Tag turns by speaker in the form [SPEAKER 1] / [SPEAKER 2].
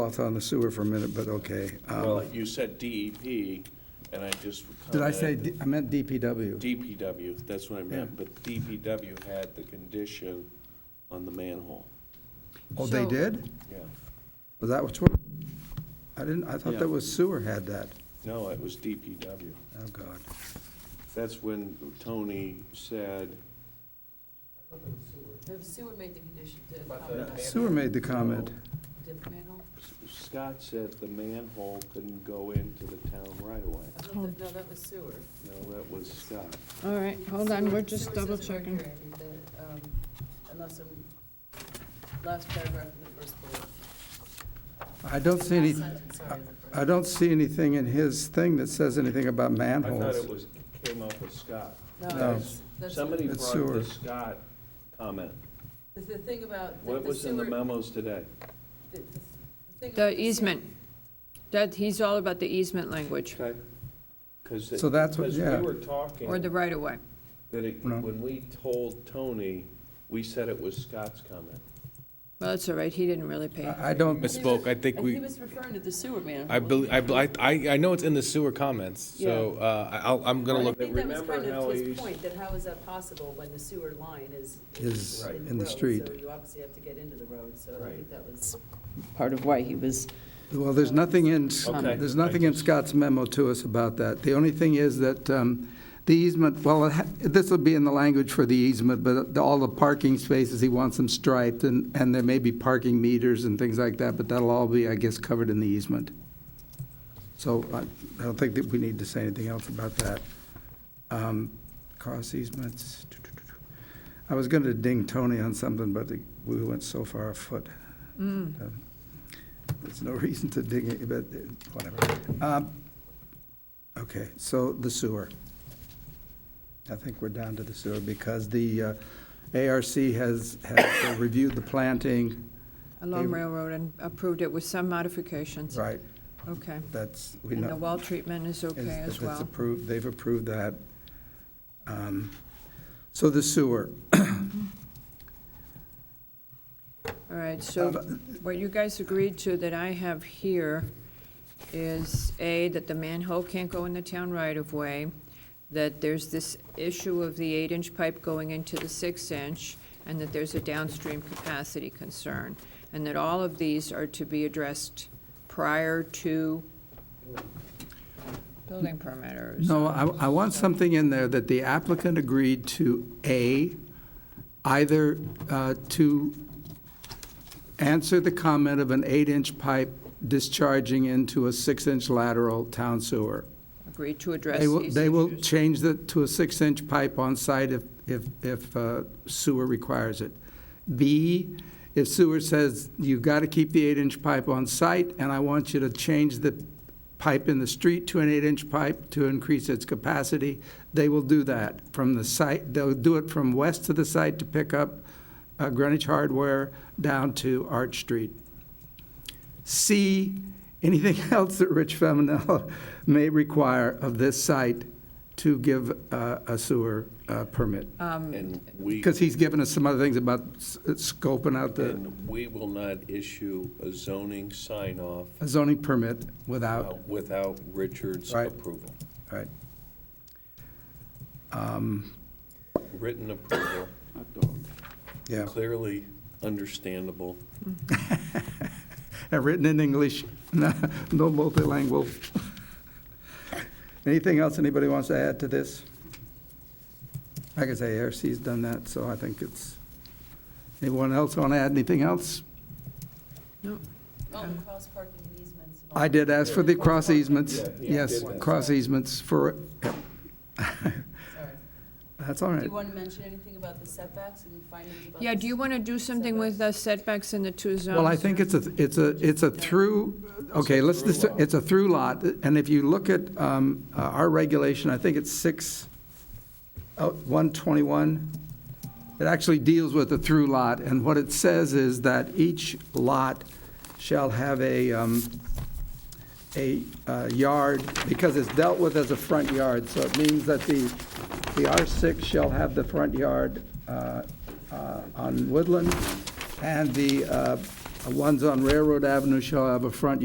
[SPEAKER 1] off on the sewer for a minute, but okay. Um,
[SPEAKER 2] Well, uh, you said DEP, and I just.
[SPEAKER 1] Did I say,
[SPEAKER 2] commented-
[SPEAKER 1] D- I meant DPW.
[SPEAKER 2] DPW, that's what I meant,
[SPEAKER 1] Yeah.
[SPEAKER 2] but DPW had the condition on the manhole,
[SPEAKER 1] Oh, they
[SPEAKER 3] So-
[SPEAKER 1] did?
[SPEAKER 2] yeah.
[SPEAKER 1] Was that what's, what- I didn't, I thought
[SPEAKER 2] Yeah.
[SPEAKER 1] that was sewer had that.
[SPEAKER 2] No, it was DPW.
[SPEAKER 1] Oh, God.
[SPEAKER 2] That's when Tony said,
[SPEAKER 3] The sewer made the condition, did
[SPEAKER 1] Sewer made the comment.
[SPEAKER 3] manhole?
[SPEAKER 2] Scott said the manhole couldn't go into the town right away.
[SPEAKER 3] I thought that- No, that was sewer.
[SPEAKER 2] No, that was Scott.
[SPEAKER 4] All right, hold on, we're
[SPEAKER 3] Sewer-
[SPEAKER 4] just
[SPEAKER 3] sewer
[SPEAKER 4] double
[SPEAKER 3] says it right
[SPEAKER 4] checking.
[SPEAKER 3] here, that, um, Unless I'm, last paragraph in the first bullet.
[SPEAKER 1] I don't see any,
[SPEAKER 3] Last sentence, sorry, is the first.
[SPEAKER 1] I don't see anything in his thing that says anything about
[SPEAKER 2] I thought it
[SPEAKER 1] manholes.
[SPEAKER 2] was, came up with Scott.
[SPEAKER 3] No,
[SPEAKER 1] no.
[SPEAKER 3] that's- that's-
[SPEAKER 2] Somebody
[SPEAKER 1] It's
[SPEAKER 2] brought the
[SPEAKER 1] sewer.
[SPEAKER 2] Scott comment.
[SPEAKER 3] The the thing about. the-
[SPEAKER 2] What
[SPEAKER 3] the
[SPEAKER 2] was in the
[SPEAKER 3] sewer-
[SPEAKER 2] memos today?
[SPEAKER 3] the- the thing about
[SPEAKER 5] The
[SPEAKER 3] sewer-
[SPEAKER 5] easement, that, he's all about the easement language,
[SPEAKER 2] Okay. Because,
[SPEAKER 1] So that's what-
[SPEAKER 2] because
[SPEAKER 1] yeah.
[SPEAKER 2] we were talking.
[SPEAKER 5] or the right-of-way.
[SPEAKER 2] That it,
[SPEAKER 1] No.
[SPEAKER 2] when we told Tony, we said it was Scott's comment.
[SPEAKER 5] Well, that's all right, he didn't really pay.
[SPEAKER 1] I I don't,
[SPEAKER 6] Misspoke, I think
[SPEAKER 3] And he
[SPEAKER 6] we,
[SPEAKER 3] was referring to the sewer manhole.
[SPEAKER 6] I believe, I, bel- I, I know it's in the sewer comments, so, uh, I- I'll, I'm gonna
[SPEAKER 3] Well, I
[SPEAKER 6] look,
[SPEAKER 3] think that was
[SPEAKER 2] Remember
[SPEAKER 3] kind
[SPEAKER 2] how
[SPEAKER 3] of
[SPEAKER 2] he
[SPEAKER 3] his
[SPEAKER 2] used-
[SPEAKER 3] point, that how is that possible when the sewer line is.
[SPEAKER 1] Is in the
[SPEAKER 3] road,
[SPEAKER 1] street.
[SPEAKER 3] So you obviously have to get into the road, so I
[SPEAKER 2] Right.
[SPEAKER 3] think that was.
[SPEAKER 4] Part of why he was,
[SPEAKER 1] well, there's nothing in,
[SPEAKER 2] Okay.
[SPEAKER 1] there's nothing in Scott's memo to us about that. The only thing is that um, the easement, well, it ha- this will be in the language for the easement, but the- all the parking spaces, he wants them striped, and, and there may be parking meters and things like that, but that'll all be, I guess, covered in the easement. So I I don't think that we need to say anything else about that. Um, Cost easements. I was going to ding Tony on something, but we went so far afoot. Um, There's no reason to ding it, but uh, whatever. Um, Okay, so the sewer. I think we're down to the sewer because the uh, ARC has has reviewed the planting.
[SPEAKER 5] Along Railroad and approved it with some modifications.
[SPEAKER 1] Right,
[SPEAKER 5] Okay.
[SPEAKER 1] that's, we
[SPEAKER 5] And
[SPEAKER 1] know.
[SPEAKER 5] the well treatment is
[SPEAKER 1] is-
[SPEAKER 5] okay as
[SPEAKER 1] if It's
[SPEAKER 5] well.
[SPEAKER 1] approved, they've approved that. Um, So the sewer,
[SPEAKER 5] All right, so
[SPEAKER 1] Um,
[SPEAKER 5] what you guys agreed to that I have here is, A, that the manhole can't go in the town right-of-way, that there's this issue of the eight-inch pipe going into the six-inch, and that there's a downstream capacity concern, and that all of these are to be addressed prior to building permit or
[SPEAKER 1] no, I, I want something in there that the applicant agreed to, A, either uh, to answer the comment of an eight-inch pipe discharging into a six-inch lateral town sewer.
[SPEAKER 5] agreed to address
[SPEAKER 1] They
[SPEAKER 5] these
[SPEAKER 1] will,
[SPEAKER 5] issues.
[SPEAKER 1] they will change that to a six-inch pipe on site if, if, if uh, sewer requires it. B, if sewer says, you've got to keep the eight-inch pipe on site, and I want you to change the pipe in the street to an eight-inch pipe to increase its capacity, they will do that from the site, they'll do it from west to the site to pick up uh, Greenwich Hardware down to Arch Street. C, anything else that Rich Feminel may require of this site to give uh, a sewer uh, permit?
[SPEAKER 5] Um,
[SPEAKER 2] And we,
[SPEAKER 1] Because he's given us some other things about s- scoping out the
[SPEAKER 2] and we will not issue a zoning sign-off
[SPEAKER 1] zoning permit without,
[SPEAKER 2] uh, without Richard's
[SPEAKER 1] Right.
[SPEAKER 2] approval,
[SPEAKER 1] right?
[SPEAKER 2] written approval,
[SPEAKER 1] Yeah,
[SPEAKER 2] clearly understandable.
[SPEAKER 1] and written in English, no no multilingual. Anything else anybody wants to add to this? Like I say, ARC's done that, so I think it's, anyone else want to add anything else?
[SPEAKER 3] Oh, and cross parking easements. and all
[SPEAKER 1] I
[SPEAKER 3] that.
[SPEAKER 1] did ask for the cross easements,
[SPEAKER 2] Yeah, he
[SPEAKER 1] yes,
[SPEAKER 2] did that.
[SPEAKER 1] cross easements for,
[SPEAKER 3] Sorry.
[SPEAKER 1] that's all
[SPEAKER 3] Do
[SPEAKER 1] right.
[SPEAKER 3] you want to mention anything about the setbacks and findings about?
[SPEAKER 5] Yeah,
[SPEAKER 3] the
[SPEAKER 5] do you want to do something with the setbacks in the two zones?
[SPEAKER 1] Well, I think it's a, it's a, it's a through, okay, let's, just- it's a through lot, and if you look at um, uh, our regulation, I think it's six, oh, 121, it actually deals with the through lot, and what it says is that each lot shall have a, um, a uh, yard, because it's dealt with as a front yard, so it means that the, the R6 shall have the front yard uh, uh, on Woodland, and the uh, Ones on Railroad Avenue shall have a front